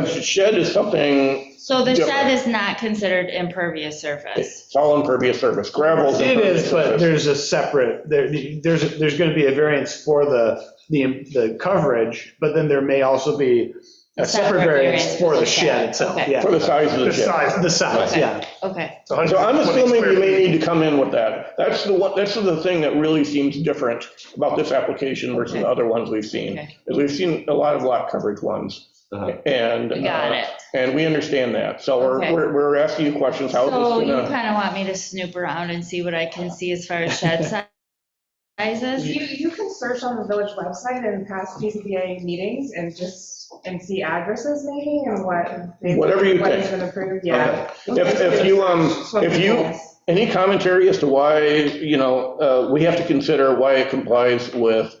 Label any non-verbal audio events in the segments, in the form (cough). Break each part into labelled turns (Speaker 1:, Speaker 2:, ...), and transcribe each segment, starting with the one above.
Speaker 1: Because the shed is something,
Speaker 2: So the shed
Speaker 1: Different.
Speaker 2: is not considered impervious surface.
Speaker 1: it's all impervious surface, gravel's
Speaker 3: It
Speaker 1: impervious
Speaker 3: is, but
Speaker 1: surface.
Speaker 3: there's a separate, there, there's, there's going to be a variance for the, the, the coverage, but then there may also be a separate variance for the shed itself,
Speaker 2: Okay.
Speaker 3: yeah.
Speaker 1: For the size of the
Speaker 3: The
Speaker 1: shed.
Speaker 3: size, the size,
Speaker 2: Okay.
Speaker 3: yeah.
Speaker 2: Okay,
Speaker 3: So
Speaker 1: So I'm assuming we may need to come in with that. That's the one, that's the thing that really seems different about this application versus the other ones we've seen.
Speaker 2: Okay.
Speaker 1: Is we've seen a lot of lot coverage ones
Speaker 4: Uh-huh.
Speaker 1: and.
Speaker 2: got
Speaker 1: uh,
Speaker 2: it.
Speaker 1: And we understand that. So we're,
Speaker 2: Okay.
Speaker 1: we're, we're asking you questions, how
Speaker 2: So
Speaker 1: is
Speaker 2: you
Speaker 1: this gonna?
Speaker 2: kind of want me to snoop around and see what I can see as far as shed si- sizes?
Speaker 5: You, you can search on the village website and past PCBA meetings and just, and see addresses maybe and what. they-
Speaker 1: Whatever you
Speaker 5: What
Speaker 1: think.
Speaker 5: has been approved, yeah.
Speaker 1: If, if you, um, if you, any commentary as to why, you know, uh, we have to consider why it complies with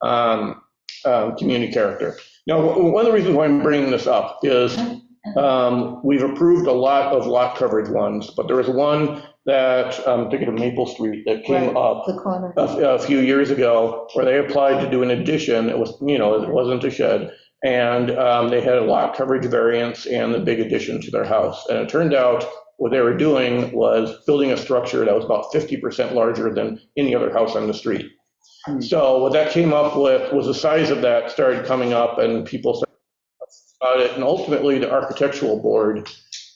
Speaker 1: um, um, community character. Now, w- one of the reasons why I'm bringing this up is um, we've approved a lot of lot coverage ones, but there was one that, um, I'm thinking of Maple Street, that came
Speaker 6: Right.
Speaker 1: up
Speaker 6: The corner.
Speaker 1: a, a few years ago where they applied to do an addition. It was, you know, it wasn't a shed. And um, they had a lot coverage variance and the big addition to their house. And it turned out what they were doing was building a structure that was about 50% larger than any other house on the street.
Speaker 3: Hmm.
Speaker 1: So what that came up with was the size of that started coming up and people started about it. And ultimately, the architectural board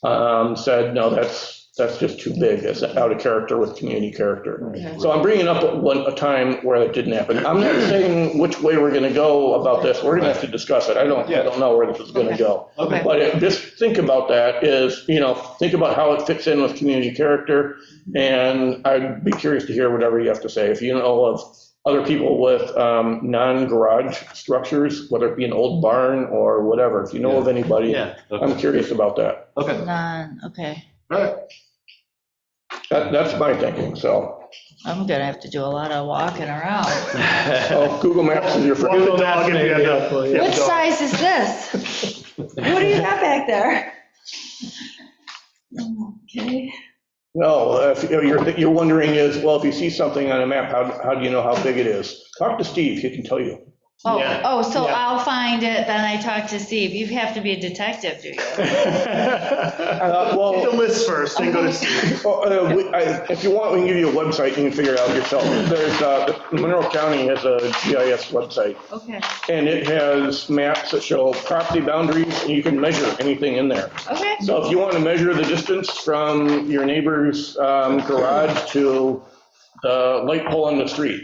Speaker 1: um, said, no, that's, that's just too big. It's out of character with community character. So I'm bringing up one, a time where it didn't happen. I'm not saying which way we're gonna go about this. We're gonna have to discuss it. I don't, I don't know where this is gonna go.
Speaker 2: Okay.
Speaker 1: But it- just think about that is, you know, think about how it fits in with community character. And I'd be curious to hear whatever you have to say. If you know of other people with um, non-garage structures, whether it be an old barn or whatever, if you know of anybody,
Speaker 4: Yeah,
Speaker 1: I'm
Speaker 4: okay,
Speaker 1: curious about that.
Speaker 4: okay,
Speaker 2: None, okay.
Speaker 4: all right.
Speaker 1: That, that's my thinking, so.
Speaker 2: I'm gonna have to do a lot of walking around.
Speaker 4: Oh,
Speaker 1: so Google Maps is your friend.
Speaker 3: Well, no, I'll give you a- yeah.
Speaker 2: What size is this? What do you got back there? Okay.
Speaker 1: No, if you know, you're, you're wondering is, well, if you see something on a map, how, how do you know how big it is? Talk to Steve, he can tell you.
Speaker 2: Oh,
Speaker 3: Yeah.
Speaker 2: oh, so
Speaker 3: Yeah.
Speaker 2: I'll find it, then I talk to Steve. You have to be a detective, do you?
Speaker 1: Uh, (laughs) well-
Speaker 3: Get the list first, then go to Steve.
Speaker 1: Oh, uh, we- I- If you want, we can give you a website, you can figure it out yourself. There's, uh, Monroe County has a GIS website,
Speaker 2: Okay,
Speaker 1: and it has maps that show property boundaries, and you can measure anything in there.
Speaker 2: okay.
Speaker 1: So if you want to measure the distance from your neighbor's um, garage to the light pole on the street,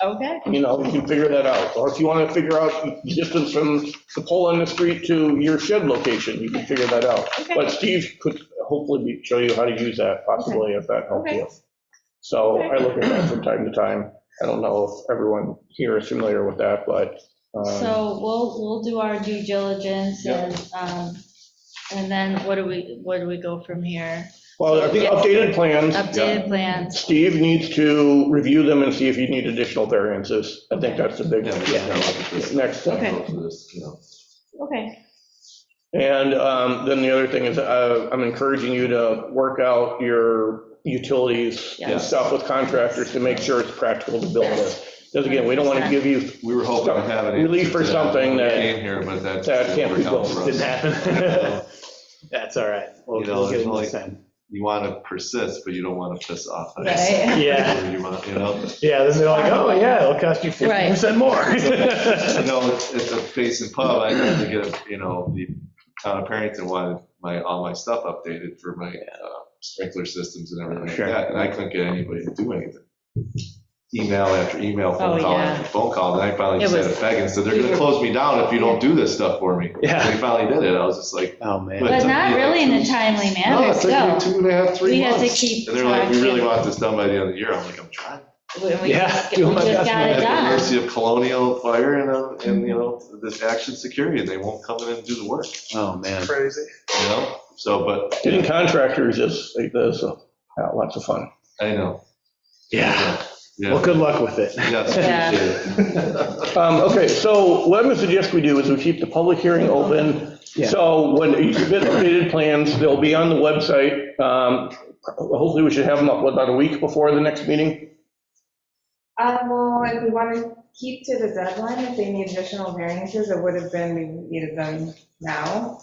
Speaker 2: Okay,
Speaker 1: you know, you can figure that out. Or if you want to figure out the distance from the pole on the street to your shed location, you can figure that out.
Speaker 2: Okay.
Speaker 1: But Steve could hopefully be- show you how to use that possibly if that helps you. So I look at that from time to time. I don't know if everyone here is familiar with that, but. um,
Speaker 2: so we'll, we'll do our due diligence
Speaker 1: Yeah.
Speaker 2: and, um, and then what do we, what do we go from here?
Speaker 1: Well, I think updated plans.
Speaker 2: Updated plans,
Speaker 1: Steve needs to review them and see if you need additional variances. I think that's the big next thing.
Speaker 2: Okay.
Speaker 4: Okay.
Speaker 2: okay,
Speaker 1: And um, then the other thing is, uh, I'm encouraging you to work out your utilities
Speaker 2: Yeah.
Speaker 1: and stuff with contractors to make sure it's practical to build this. Because again, we don't want to give you,
Speaker 4: We were hoping to have an.
Speaker 1: Relief
Speaker 4: answer
Speaker 1: for
Speaker 4: to
Speaker 1: something
Speaker 4: when we
Speaker 1: that-
Speaker 4: Came here, but that's.
Speaker 1: that can't be built.
Speaker 3: Didn't happen. (laughs) That's all right. We'll
Speaker 4: You know,
Speaker 3: we'll get
Speaker 4: it's
Speaker 3: it
Speaker 4: like-
Speaker 3: next time.
Speaker 4: You want to persist, but you don't want to piss off. us. (laughs)
Speaker 2: right?
Speaker 3: Yeah,
Speaker 4: Or You want, you know,
Speaker 3: yeah, then they're like, oh, yeah, it'll cost you 50%
Speaker 4: you
Speaker 3: more.
Speaker 4: know, it's it's a basin pub, I had to get, a- you know, the town of Parrington wanted my, all my stuff updated for my uh, sprinkler systems and everything like
Speaker 1: Sure.
Speaker 4: that, and I couldn't get anybody to do anything. Email after email, phone
Speaker 2: Oh,
Speaker 4: call
Speaker 2: yeah.
Speaker 4: after phone call, and I finally
Speaker 2: It
Speaker 4: just had
Speaker 2: was-
Speaker 4: a beg and said, they're gonna close me down if you don't do this stuff for
Speaker 2: (laughs)
Speaker 4: me.
Speaker 3: Yeah.
Speaker 4: And They finally did it, I was just like,
Speaker 3: Oh, man.
Speaker 2: But not really in a timely
Speaker 4: no,
Speaker 2: manner,
Speaker 4: it's taking
Speaker 2: still.
Speaker 4: two and a half, three
Speaker 2: We have
Speaker 4: months.
Speaker 2: to keep
Speaker 4: And they're like, we really
Speaker 2: tracking.
Speaker 4: want this done by the end of the year, I'm like, I'm trying.
Speaker 2: We- we
Speaker 3: Yeah,
Speaker 2: just-
Speaker 3: doing
Speaker 2: We
Speaker 3: my
Speaker 2: just
Speaker 3: best
Speaker 2: got it
Speaker 4: At the
Speaker 2: done.
Speaker 4: mercy of Colonial Fire and, um, and, you know, this Action Security, and they won't come in and do the work.
Speaker 3: Oh, man.
Speaker 4: Crazy. You know, so, but,
Speaker 1: getting contractors is, is uh, lots of fun.
Speaker 4: I know,
Speaker 3: Yeah. Well,
Speaker 4: yeah,
Speaker 3: good luck with it.
Speaker 4: yes,
Speaker 2: Yeah.
Speaker 4: appreciate it.
Speaker 1: Um, Okay, so what I'm going to suggest we do is we keep the public hearing open.
Speaker 3: Yeah.
Speaker 1: So when you submit updated plans, they'll be on the website. Um, Hopefully, we should have them up what, about a week before the next meeting.
Speaker 5: Uh, well, if we want to keep to the deadline, if they need additional variances, it would have been, we needed them now.